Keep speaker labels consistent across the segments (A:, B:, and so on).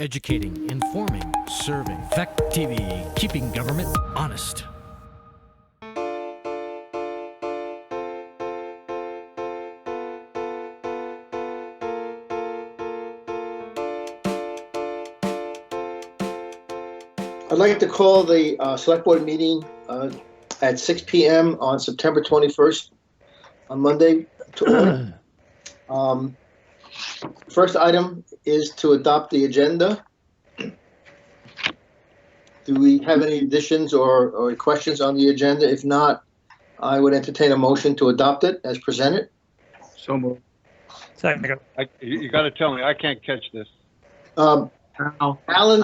A: educating, informing, serving. Fact TV, keeping government honest.
B: I'd like to call the uh, Select Board meeting uh, at 6 PM on September 21st, on Monday. to order. Um, First item is to adopt the agenda. Do we have any additions or or questions on the agenda? If not, I would entertain a motion to adopt it as presented.
C: So moved.
D: Second.
C: I, you you gotta tell me, I can't catch this.
B: Um,
D: Al, I,
B: Alan,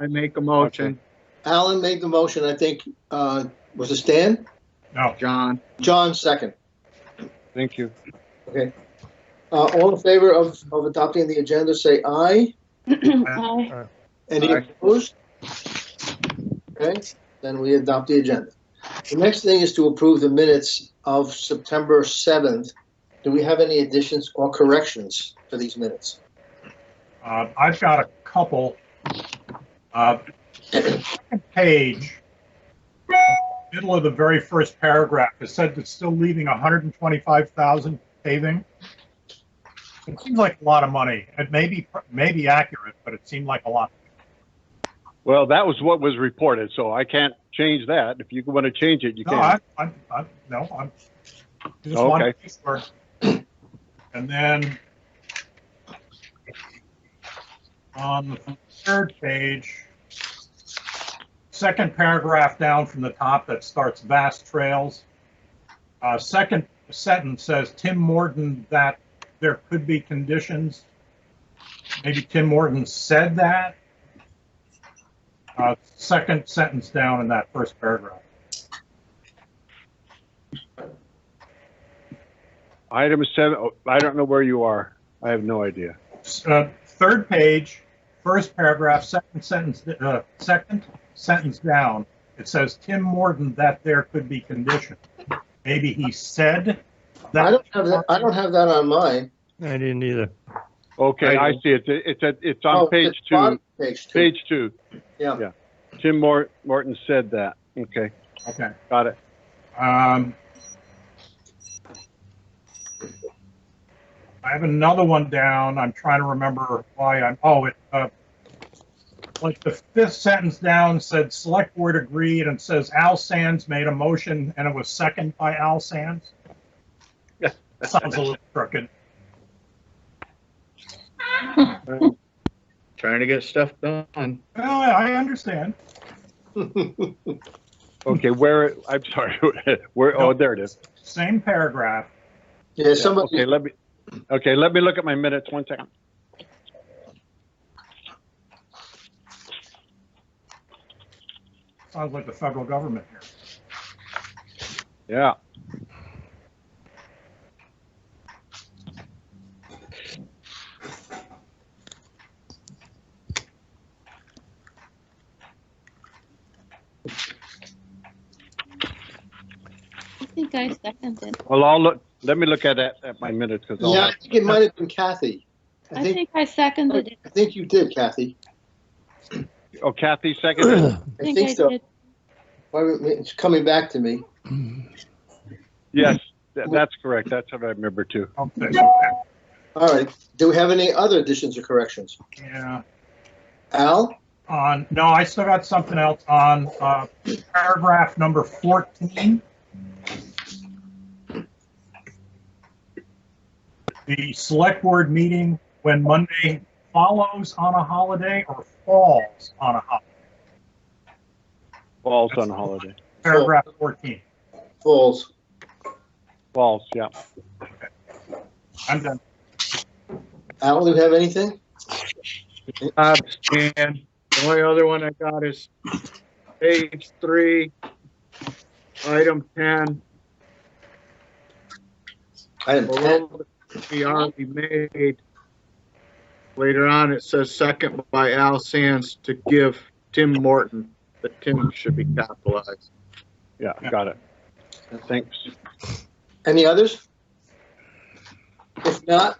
D: I make a motion.
B: Alan made the motion, I think, uh, was it Stan?
D: John,
B: John second.
C: Thank you.
B: Uh, all in favor of, of adopting the agenda, say aye.
E: Aye.
B: Any
D: Aye.
B: opposed? Okay, then we adopt the agenda. The next thing is to approve the minutes of September 7th. Do we have any additions or corrections to these minutes?
F: Uh, I've got a couple. Uh, second Page, middle of the very first paragraph, it said it's still leaving 125,000 paving. It seems like a lot of money. It may be, may be accurate, but it seemed like a lot.
C: Well, that was what was reported, so I can't change that. If you wanna change it, you
F: No,
C: can.
F: I, I'm, I'm, no, I'm, I just
C: Okay.
F: want to be sure. And then on the third page, second paragraph down from the top that starts vast trails. Uh, second sentence says Tim Morton that there could be conditions. Maybe Tim Morton said that. Uh, second sentence down in that first paragraph.
C: Item seven, oh, I don't know where you are. I have no idea.
F: uh, third page, first paragraph, second sentence, uh, second sentence down, it says Tim Morton that there could be condition. Maybe he said
B: I
F: that,
B: don't have that, I don't have that on mine.
D: I didn't either.
C: Okay, I see it. It's, at- it's
B: Oh,
C: on
B: it's
C: page two,
B: bottom- Page two,
C: page two.
B: yeah.
C: Tim Mor- Morton said that. Okay,
F: okay.
C: got it.
F: Um, I have another one down. I'm trying to remember why I'm, oh, it, uh, like the fifth sentence down said select board agreed and says Al Sands made a motion and it was second by Al Sands. Sounds a little crooked.
D: Trying to get stuff done.
F: Well, I I understand.
C: Okay, where, I'm sorry, where, oh, there it is.
F: Same paragraph.
B: Yeah,
C: Okay,
B: somebody,
C: let me, okay, let me look at my minutes one second.
F: Sounds like the federal government here.
C: Yeah.
E: I think I seconded.
C: Well, I'll look, let me look at that, at my minutes, because I'll
B: yeah,
C: have
B: I think it might have been Kathy. I
E: I
B: think,
E: think I seconded it.
B: I think you did, Kathy.
C: Oh, Kathy seconded?
B: I think so.
E: did.
B: Why would- It's coming back to me.
C: Yes, tha- that's correct. That's what I remember too.
F: Okay,
B: All right, do we have any other additions or corrections?
F: yeah.
B: Al?
F: on, no, I still got something else on uh, paragraph number 14. The select board meeting when Monday follows on a holiday or falls on a holiday.
C: Falls on holiday.
F: Paragraph 14.
B: Falls.
C: Falls, yeah.
F: I'm done.
B: Al, do you have anything?
D: Abstain. The only other one I got is page three, item ten,
B: Item 10.
D: below the we already made. Later on, it says second by Al Sands to give Tim Morton, the Tim should be capitalized.
C: Yeah, got it. Thanks.
B: Any others? If not,